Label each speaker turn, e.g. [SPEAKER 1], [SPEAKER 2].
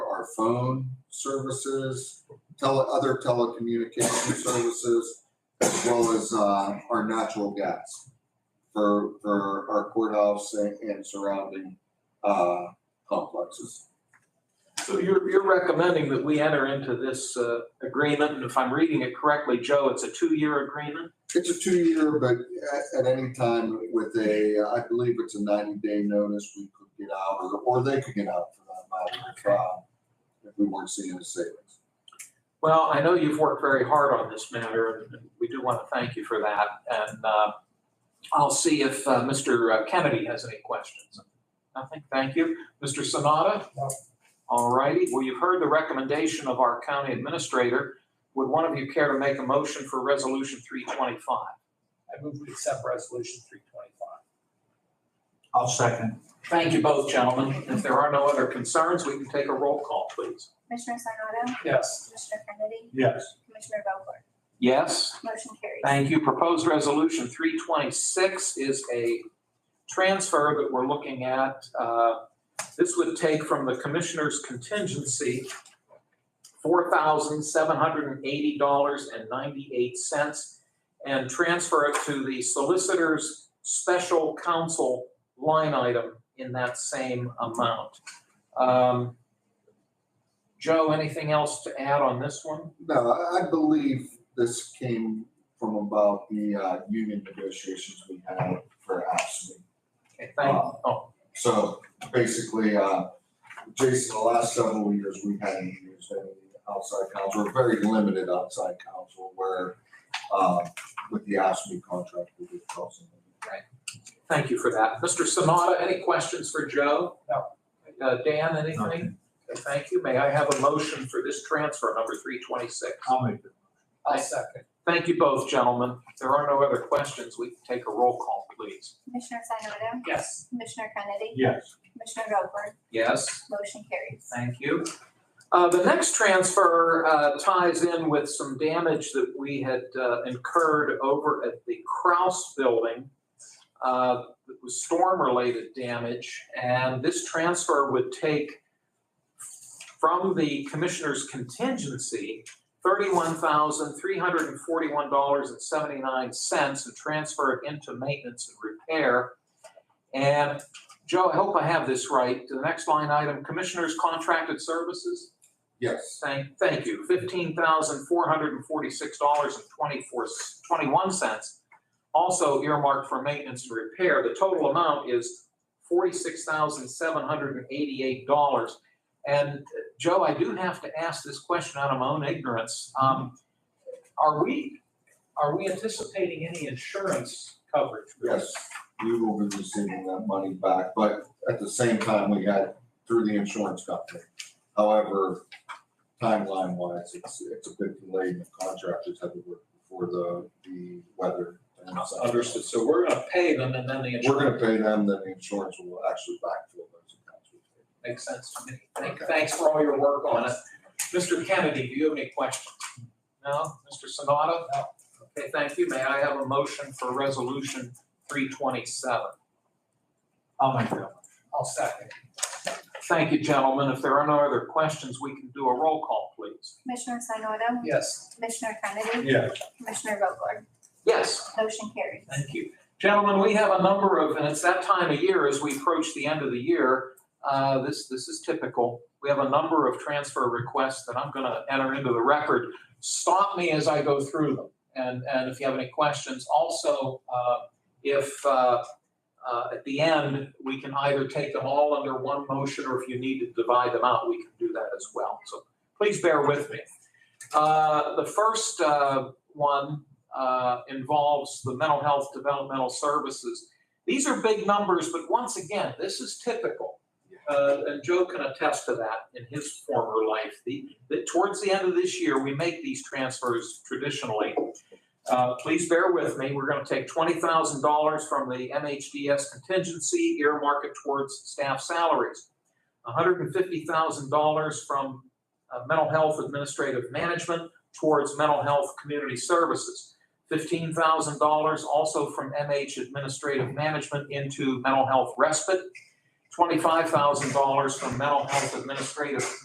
[SPEAKER 1] our phone services, tele, other telecommunication services, as well as, uh, our natural gas for, for our courthouse and and surrounding, uh, complexes.
[SPEAKER 2] So you're, you're recommending that we enter into this uh, agreement, and if I'm reading it correctly, Joe, it's a two-year agreement?
[SPEAKER 1] It's a two-year, but at, at any time with a, I believe it's a ninety-day notice, we could get out, or, or they could get out for that matter, if, uh, if we weren't seeing a savings.
[SPEAKER 2] Well, I know you've worked very hard on this matter, and we do want to thank you for that. And uh, I'll see if uh, Mr. Kennedy has any questions. Nothing, thank you. Mr. Sanada?
[SPEAKER 3] No.
[SPEAKER 2] All righty, well, you've heard the recommendation of our county administrator. Would one of you care to make a motion for Resolution 325?
[SPEAKER 3] I move we accept resolution three twenty-five.
[SPEAKER 4] I'll second.
[SPEAKER 2] Thank you both, gentlemen. If there are no other concerns, we can take a roll call, please.
[SPEAKER 5] Commissioner Sanado,
[SPEAKER 3] Yes.
[SPEAKER 5] Commissioner Kennedy,
[SPEAKER 4] Yes.
[SPEAKER 5] Commissioner Vogler,
[SPEAKER 2] Yes?
[SPEAKER 5] motion carries.
[SPEAKER 2] Thank you. Proposed resolution three twenty-six is a transfer that we're looking at. Uh, This would take from the commissioner's contingency four thousand seven hundred and eighty dollars and ninety-eight cents and transfer it to the solicitor's special counsel line item in that same amount. Um, Joe, anything else to add on this one?
[SPEAKER 1] No, I- I believe this came from about the uh, union negotiations we had for ASME.
[SPEAKER 2] Okay, thank, oh,
[SPEAKER 1] So basically, uh, Jason, the last several years, we hadn't used any outside counsel, or very limited outside counsel, where uh, with the ASME contract, we did call somebody.
[SPEAKER 2] Thank you for that. Mr. Sanada, any questions for Joe? No. Uh, Dan, anything? Okay, Thank you. May I have a motion for this transfer, number three twenty-six?
[SPEAKER 4] I'll make it.
[SPEAKER 3] I'll second.
[SPEAKER 2] Thank you both, gentlemen. If there are no other questions, we can take a roll call, please.
[SPEAKER 5] Commissioner Sanado,
[SPEAKER 3] Yes.
[SPEAKER 5] Commissioner Kennedy,
[SPEAKER 4] Yes.
[SPEAKER 5] Commissioner Vogler,
[SPEAKER 2] Yes.
[SPEAKER 5] motion carries.
[SPEAKER 2] Thank you. Uh, The next transfer uh, ties in with some damage that we had uh, incurred over at the Kraus Building. uh, That was storm-related damage, and this transfer would take from the commissioner's contingency, $31,341.79, and transfer it into maintenance and repair. And Joe, I hope I have this right. The next line item, Commissioners Contracted Services.
[SPEAKER 1] Yes,
[SPEAKER 2] Thank, thank you. Fifteen thousand, four hundred and forty-six dollars and twenty-four, twenty-one cents. Also earmarked for maintenance and repair. The total amount is forty-six thousand, seven hundred and eighty-eight dollars. And uh, Joe, I do have to ask this question out of my own ignorance. Um, are we, are we anticipating any insurance coverage?
[SPEAKER 1] yes, we will be receiving that money back, but at the same time, we had through the insurance company. However, timeline wise, it's, it's a bit delayed, and the contractors had to work before the, the weather. and such.
[SPEAKER 2] Understood. So we're gonna pay them and then the insurance.
[SPEAKER 1] We're gonna pay them, then the insurance will actually backfill those accounts. we paid.
[SPEAKER 2] Makes sense to me. Thank-
[SPEAKER 1] Okay.
[SPEAKER 2] Thanks for all your work on it. Mr. Kennedy, do you have any questions? No? Mr. Sanada? No. Okay, thank you. May I have a motion for Resolution 327?
[SPEAKER 4] I'll make that.
[SPEAKER 3] I'll second.
[SPEAKER 2] Thank you, gentlemen. If there are no other questions, we can do a roll call, please.
[SPEAKER 5] Commissioner Sanado,
[SPEAKER 3] Yes.
[SPEAKER 5] Commissioner Kennedy,
[SPEAKER 4] Yes.
[SPEAKER 5] Commissioner Vogler,
[SPEAKER 2] Yes.
[SPEAKER 5] motion carries.
[SPEAKER 2] Thank you. Gentlemen, we have a number of, and it's that time of year as we approach the end of the year. uh, This, this is typical. We have a number of transfer requests that I'm going to enter into the record. Stop me as I go through them. And, and if you have any questions, also, uh, if uh, uh, at the end, we can either take them all under one motion, or if you need to divide them out, we can do that as well. So please bear with me. Uh, The first uh, one uh, involves the mental health developmental services. These are big numbers, but once again, this is typical. Uh, and Joe can attest to that in his former life. The, that towards the end of this year, we make these transfers traditionally. Uh, please bear with me. We're going to take twenty thousand dollars from the MHDS contingency, earmark it towards staff salaries. One hundred and fifty thousand dollars from uh, mental health administrative management towards mental health community services fifteen thousand dollars also from MH Administrative Management into mental health respite, twenty-five thousand dollars from mental health administrative